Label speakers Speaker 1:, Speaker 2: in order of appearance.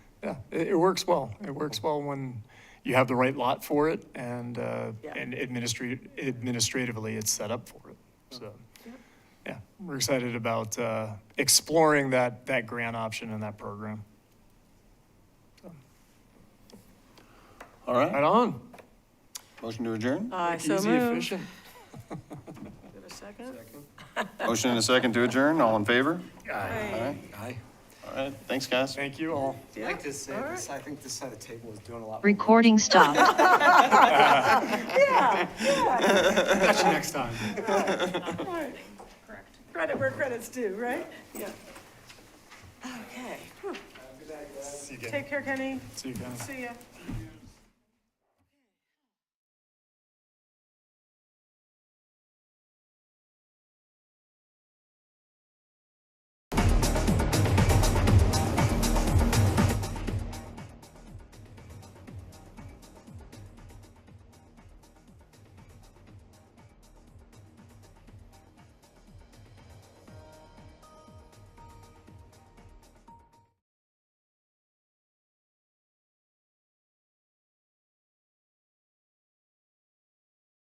Speaker 1: Yeah, it, it works well. It works well when you have the right lot for it and, uh,
Speaker 2: Yeah.
Speaker 1: and administri- administratively, it's set up for it, so. Yeah, we're excited about, uh, exploring that, that grant option and that program.
Speaker 3: All
Speaker 1: Right
Speaker 3: right,
Speaker 1: on.
Speaker 3: motion to adjourn?
Speaker 2: I so
Speaker 1: Easy,
Speaker 2: moved.
Speaker 1: efficient.
Speaker 2: Give it a second.
Speaker 3: Motion and a second to adjourn, all in favor?
Speaker 2: Aye.
Speaker 3: Aye. All right, thanks, guys.
Speaker 1: Thank you all.
Speaker 4: I like this, uh, this- I think this side of the table is doing a lot. more.
Speaker 5: Recording stopped.
Speaker 1: Catch you next time.
Speaker 2: Right. Credit where credit's due, right? Yeah. Okay. Whew.
Speaker 1: See you again.
Speaker 2: Take care, Kenny.
Speaker 1: See you again.
Speaker 2: See ya.